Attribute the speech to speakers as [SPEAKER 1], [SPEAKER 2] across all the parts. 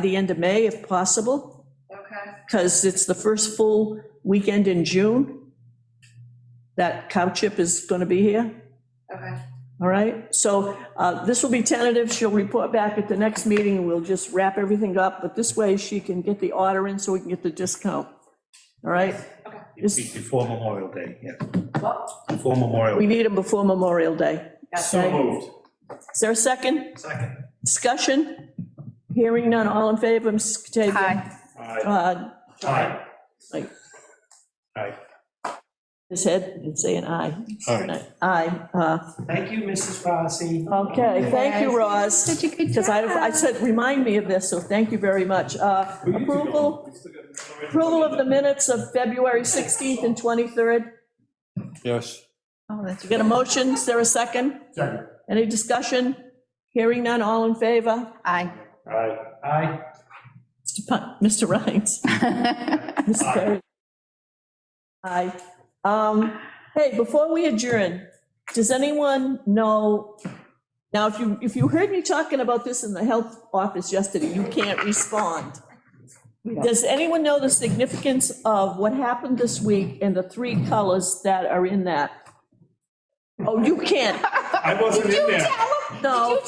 [SPEAKER 1] the end of May if possible,
[SPEAKER 2] Okay,
[SPEAKER 1] because it's the first full weekend in June that cow chip is going to be here.
[SPEAKER 2] okay.
[SPEAKER 1] All right, so uh, this will be tentative, she'll report back at the next meeting, and we'll just wrap everything up, but this way she can get the order in so we can get the discount. All right? This-
[SPEAKER 3] Before Memorial Day, yeah,
[SPEAKER 2] Well,
[SPEAKER 3] before
[SPEAKER 1] We
[SPEAKER 3] Memorial.
[SPEAKER 1] need them before Memorial Day.
[SPEAKER 3] So moved.
[SPEAKER 1] Is there a second?
[SPEAKER 3] Second.
[SPEAKER 1] Discussion? Hearing none, all in favor, Mrs. Katavia?
[SPEAKER 2] Aye.
[SPEAKER 3] Aye.
[SPEAKER 1] Uh,
[SPEAKER 3] Aye.
[SPEAKER 1] Aye.
[SPEAKER 3] Aye.
[SPEAKER 1] His head, and say an aye.
[SPEAKER 3] Aye.
[SPEAKER 1] Aye, uh,
[SPEAKER 4] Thank you, Mrs. Rossi.
[SPEAKER 1] okay, thank you, Roz.
[SPEAKER 2] Such a good
[SPEAKER 1] Because I, I said, remind me of this, so thank you very much. Uh, Approval, approval of the minutes of February 16th and 23rd.
[SPEAKER 5] Yes.
[SPEAKER 2] Oh, that's
[SPEAKER 1] Get a motion, is there a second?
[SPEAKER 3] Second.
[SPEAKER 1] Any discussion? Hearing none, all in favor?
[SPEAKER 2] Aye.
[SPEAKER 3] Aye.
[SPEAKER 4] Aye.
[SPEAKER 1] Mr. Pun- Mr. Rhines? Ms. Perry? Aye. Um, Hey, before we adjourn, does anyone know, now, if you, if you heard me talking about this in the health office yesterday, you can't respond. Does anyone know the significance of what happened this week and the three colors that are in that? Oh, you can't,
[SPEAKER 3] I wasn't in there.
[SPEAKER 1] no.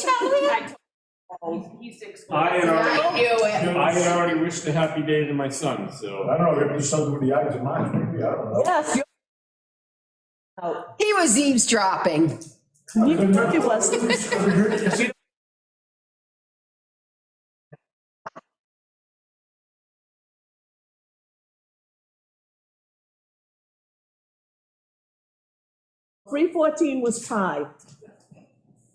[SPEAKER 5] I had already,
[SPEAKER 2] knew
[SPEAKER 5] I had already wished a happy day to my son, so.
[SPEAKER 6] I don't know, we have to do something with the eyes and minds, maybe, I don't know.
[SPEAKER 1] Yes, you're. Oh,
[SPEAKER 2] He was eavesdropping.
[SPEAKER 1] you think it was. Three fourteen was tied.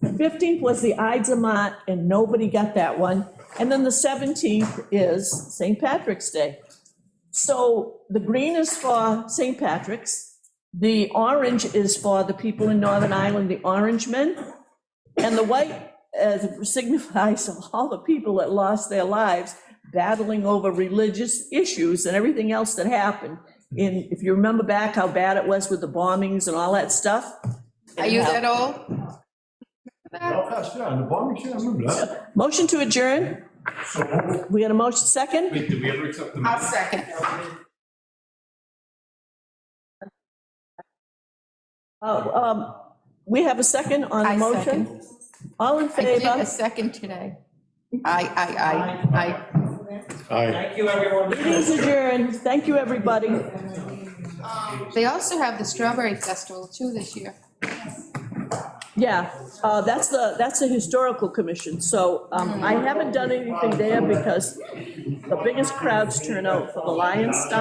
[SPEAKER 1] The fifteenth was the Ides of Mont, and nobody got that one. And then the seventeenth is St. Patrick's Day. So the green is for St. Patrick's. The orange is for the people in Northern Ireland, the Orange Men. And the white uh, signifies all the people that lost their lives battling over religious issues and everything else that happened. And if you remember back how bad it was with the bombings and all that stuff.
[SPEAKER 2] Are you that old?
[SPEAKER 6] Oh, gosh, yeah, and the bombing, yeah, I remember that.
[SPEAKER 1] Motion to adjourn? We got a motion second?
[SPEAKER 5] Wait, did we ever accept the?
[SPEAKER 2] I'll second.
[SPEAKER 1] Oh, um, We have a second on the
[SPEAKER 2] I
[SPEAKER 1] motion?
[SPEAKER 2] second.
[SPEAKER 1] All in
[SPEAKER 2] I did
[SPEAKER 1] favor?
[SPEAKER 2] a second today. I, I, I, I.
[SPEAKER 5] Aye.
[SPEAKER 4] Thank you, everyone.
[SPEAKER 1] Please adjourn. Thank you, everybody.
[SPEAKER 2] They also have the Strawberry Festival too this year.
[SPEAKER 1] Yeah, uh, that's the, that's the historical commission, so um, I haven't done anything there because the biggest crowds turn out for the Lions stuff.